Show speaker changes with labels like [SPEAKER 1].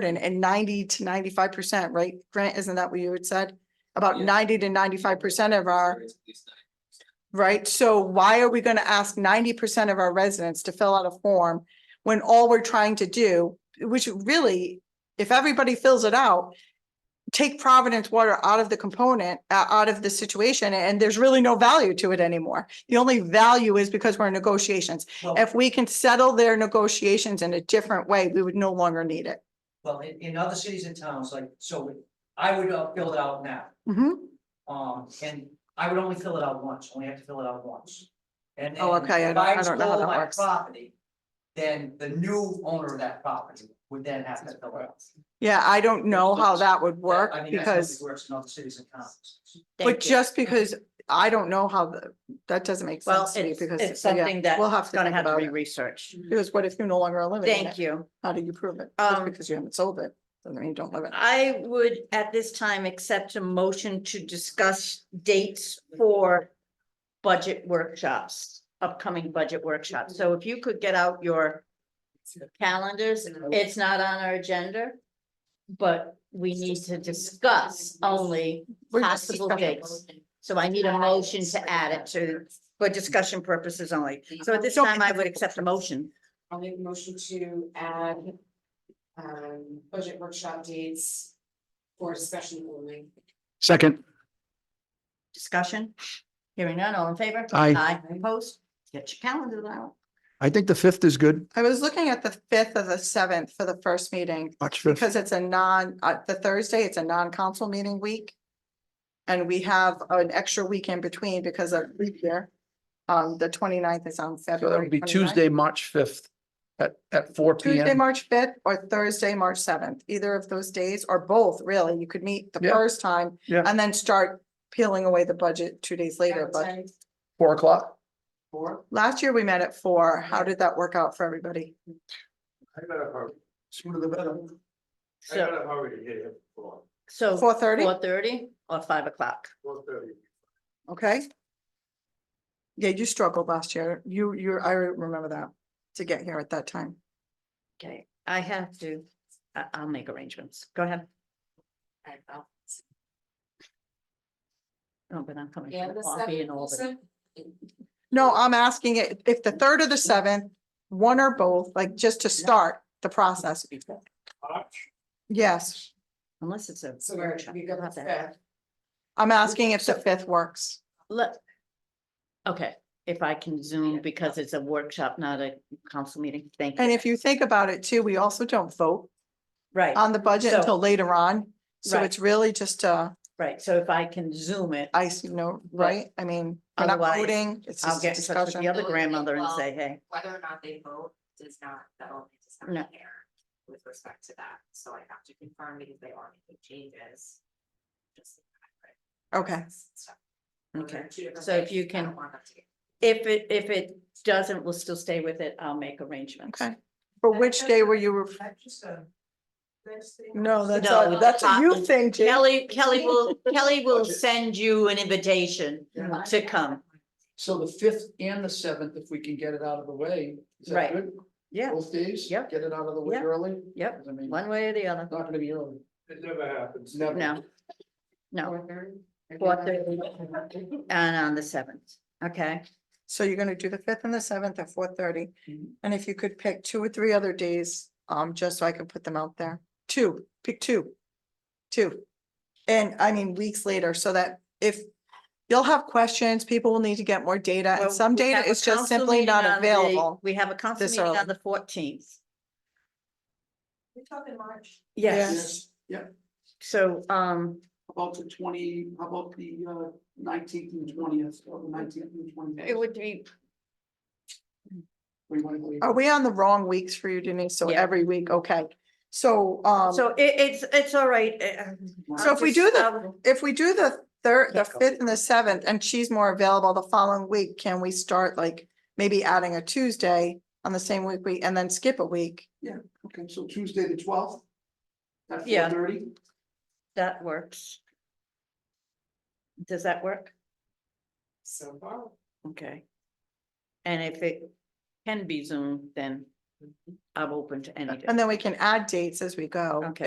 [SPEAKER 1] garden and ninety to ninety-five percent, right? Grant, isn't that what you had said? About
[SPEAKER 2] Yeah.
[SPEAKER 1] ninety to ninety-five percent of our,
[SPEAKER 2] It's at least nine.
[SPEAKER 1] right? So why are we gonna ask ninety percent of our residents to fill out a form when all we're trying to do, which really, if everybody fills it out, take Providence Water out of the component, uh, out of the situation, and there's really no value to it anymore. The only value is because we're in negotiations.
[SPEAKER 3] Well-
[SPEAKER 1] If we can settle their negotiations in a different way, we would no longer need it.
[SPEAKER 3] Well, in, in other cities and towns, like, so I would uh, fill it out now,
[SPEAKER 1] Mhm.
[SPEAKER 3] um, and I would only fill it out once, only have to fill it out once. And.
[SPEAKER 1] Oh,
[SPEAKER 3] and
[SPEAKER 1] okay, I
[SPEAKER 3] if
[SPEAKER 1] don't- I
[SPEAKER 3] was
[SPEAKER 1] don't know how
[SPEAKER 3] sold
[SPEAKER 1] that
[SPEAKER 3] my
[SPEAKER 1] works.
[SPEAKER 3] Property, then the new owner of that property would then have to fill it out.
[SPEAKER 1] Yeah, I don't know how that would
[SPEAKER 3] I
[SPEAKER 1] work
[SPEAKER 3] mean, that's how it
[SPEAKER 1] because,
[SPEAKER 3] Works in other cities and towns.
[SPEAKER 1] but just because I don't know how, the- that doesn't make
[SPEAKER 4] Well,
[SPEAKER 1] sense to me
[SPEAKER 4] it's,
[SPEAKER 1] because.
[SPEAKER 4] it's
[SPEAKER 1] yeah,
[SPEAKER 4] something
[SPEAKER 1] We'll have
[SPEAKER 4] that's
[SPEAKER 1] to
[SPEAKER 4] gonna
[SPEAKER 1] think
[SPEAKER 4] have to
[SPEAKER 1] about
[SPEAKER 4] be
[SPEAKER 1] it.
[SPEAKER 4] researched.
[SPEAKER 1] Because what if you're no longer eliminating it?
[SPEAKER 4] Thank you.
[SPEAKER 1] How do you prove it? Just
[SPEAKER 4] Um,
[SPEAKER 1] because you haven't sold it, doesn't mean you don't live in it.
[SPEAKER 4] I would at this time accept a motion to discuss dates for budget workshops, upcoming budget workshops. So if you could get out your calendars, it's not on our agenda, but we need to discuss only
[SPEAKER 1] We're just
[SPEAKER 4] possible
[SPEAKER 1] discussing.
[SPEAKER 4] dates. So I need a motion to add it to, for discussion purposes only. So at this
[SPEAKER 1] Don't-
[SPEAKER 4] time, I would accept a motion.
[SPEAKER 5] I'll make a motion to add um budget workshop dates for discussion only.
[SPEAKER 6] Second,
[SPEAKER 4] Discussion? Hearing none, all in favor?
[SPEAKER 6] Aye.
[SPEAKER 4] Aye, opposed? Get your calendar out.
[SPEAKER 6] I think the fifth is good,
[SPEAKER 1] I was looking at the fifth of the seventh for the first meeting,
[SPEAKER 6] March fifth.
[SPEAKER 1] because it's a non, uh, the Thursday, it's a non-council meeting week. And we have an extra week in between because of leap year. Um, the 29th is on
[SPEAKER 6] So that
[SPEAKER 1] February.
[SPEAKER 6] would be
[SPEAKER 1] 29th.
[SPEAKER 6] Tuesday, March fifth at, at four P
[SPEAKER 1] Tuesday,
[SPEAKER 6] M.
[SPEAKER 1] March fifth or Thursday, March seventh, either of those days or both, really. You could meet the
[SPEAKER 6] Yeah.
[SPEAKER 1] first time.
[SPEAKER 6] Yeah.
[SPEAKER 1] And then start peeling away the budget two days later, but.
[SPEAKER 5] Advertise
[SPEAKER 6] Four o'clock?
[SPEAKER 5] for-
[SPEAKER 1] Last year we met at four. How did that work out for everybody?
[SPEAKER 6] Sooner the better.
[SPEAKER 4] So, so
[SPEAKER 1] Four thirty,
[SPEAKER 4] four thirty or five o'clock?
[SPEAKER 1] okay? Yeah, you struggled last year. You, you, I remember that, to get here at that time.
[SPEAKER 4] Okay, I have to, I, I'll make arrangements. Go ahead.
[SPEAKER 5] I- I'll-
[SPEAKER 4] Oh, but I'm coming
[SPEAKER 5] Yeah,
[SPEAKER 4] for the
[SPEAKER 5] the
[SPEAKER 4] coffee and all that.
[SPEAKER 5] seventh,
[SPEAKER 1] No, I'm asking it, if the third or the seventh, one or both, like just to start the process. Yes,
[SPEAKER 4] Unless it's a.
[SPEAKER 5] So we're,
[SPEAKER 4] workshop,
[SPEAKER 5] we
[SPEAKER 4] we'll
[SPEAKER 5] go
[SPEAKER 4] have to
[SPEAKER 5] back.
[SPEAKER 1] I'm asking if the fifth works.
[SPEAKER 4] Let. Okay, if I can zoom because it's a workshop, not a council meeting. Thank you.
[SPEAKER 1] And if you think about it too, we also don't vote
[SPEAKER 4] Right,
[SPEAKER 1] on the budget
[SPEAKER 4] So-
[SPEAKER 1] until later on. So
[SPEAKER 4] Right.
[SPEAKER 1] it's really just a,
[SPEAKER 4] right. So if I can zoom it,
[SPEAKER 1] I, you know, right? I mean, we're not
[SPEAKER 4] Otherwise,
[SPEAKER 1] voting, it's
[SPEAKER 4] I'll
[SPEAKER 1] just
[SPEAKER 4] get in touch with the
[SPEAKER 1] discussion.
[SPEAKER 4] other grandmother and say, hey.
[SPEAKER 5] Whether or not they vote does not, that only does
[SPEAKER 4] No.
[SPEAKER 5] not care with respect to that. So I have to confirm because they are making changes. Just
[SPEAKER 1] Okay.
[SPEAKER 5] stuff. Those are
[SPEAKER 4] Okay,
[SPEAKER 5] two different
[SPEAKER 4] so if
[SPEAKER 5] things.
[SPEAKER 4] you
[SPEAKER 5] I
[SPEAKER 4] can-
[SPEAKER 5] don't want them to get-
[SPEAKER 4] if it, if it doesn't, we'll still stay with it. I'll make arrangements.
[SPEAKER 1] Okay, for which day were you, ref-
[SPEAKER 3] That's just a.
[SPEAKER 1] no, that's,
[SPEAKER 4] No,
[SPEAKER 1] a- that's a you
[SPEAKER 4] Scotland.
[SPEAKER 1] thing, Jim.
[SPEAKER 4] Kelly, Kelly will, Kelly will send you an invitation to come.
[SPEAKER 6] So the fifth and the seventh, if we can get it out of the way, is
[SPEAKER 4] Right.
[SPEAKER 6] that good?
[SPEAKER 4] Yeah,
[SPEAKER 6] Both days?
[SPEAKER 4] Yep.
[SPEAKER 6] Get it out of the way
[SPEAKER 4] Yep.
[SPEAKER 6] early?
[SPEAKER 4] Yep.
[SPEAKER 6] 'Cause I mean,
[SPEAKER 4] one way or the other.
[SPEAKER 6] it's not gonna be early.
[SPEAKER 2] It never happens.
[SPEAKER 6] Never.
[SPEAKER 4] No, no,
[SPEAKER 5] Four thirty?
[SPEAKER 4] Four and on the seventh. Okay,
[SPEAKER 1] So you're gonna do the fifth and the seventh at four thirty,
[SPEAKER 4] Mm-hmm.
[SPEAKER 6] Mhm.
[SPEAKER 1] and if you could pick two or three other days, um, just so I can put them out there. Two, pick two. Two. And I mean, weeks later, so that if you'll have questions, people will need to get more data,
[SPEAKER 4] Well,
[SPEAKER 1] and Uh, some
[SPEAKER 4] we have
[SPEAKER 1] data
[SPEAKER 4] a
[SPEAKER 1] is just
[SPEAKER 4] council
[SPEAKER 1] simply
[SPEAKER 4] meeting
[SPEAKER 1] not
[SPEAKER 4] on the-
[SPEAKER 1] available.
[SPEAKER 4] We have a council
[SPEAKER 1] this
[SPEAKER 4] meeting
[SPEAKER 1] early.
[SPEAKER 4] on the fourteenth.
[SPEAKER 3] We're talking March.
[SPEAKER 4] Yes,
[SPEAKER 6] Yeah,
[SPEAKER 4] so, um,
[SPEAKER 6] about the twenty, how about the uh, nineteenth and twentieth, or the nineteenth and twentieth?
[SPEAKER 4] it would be,
[SPEAKER 1] Are we on the wrong weeks for you, Denise? So
[SPEAKER 4] Yeah.
[SPEAKER 1] every week, okay. So, um.
[SPEAKER 4] so it, it's, it's all right. uh,
[SPEAKER 1] So if we do
[SPEAKER 4] just,
[SPEAKER 1] the-
[SPEAKER 4] um,
[SPEAKER 1] If we do the third, the
[SPEAKER 4] Can't go.
[SPEAKER 1] fifth and the seventh, and she's more available the following week, can we start like maybe adding a Tuesday on the same week we, and then skip a week?
[SPEAKER 6] Okay, so Tuesday, the twelfth. At
[SPEAKER 4] Yeah.
[SPEAKER 6] four thirty,
[SPEAKER 4] That works. Does that work?
[SPEAKER 5] So far.
[SPEAKER 4] Okay. And if it can be Zoom, then
[SPEAKER 1] I'm open to any.
[SPEAKER 4] And then we can add dates as we go.
[SPEAKER 1] Okay.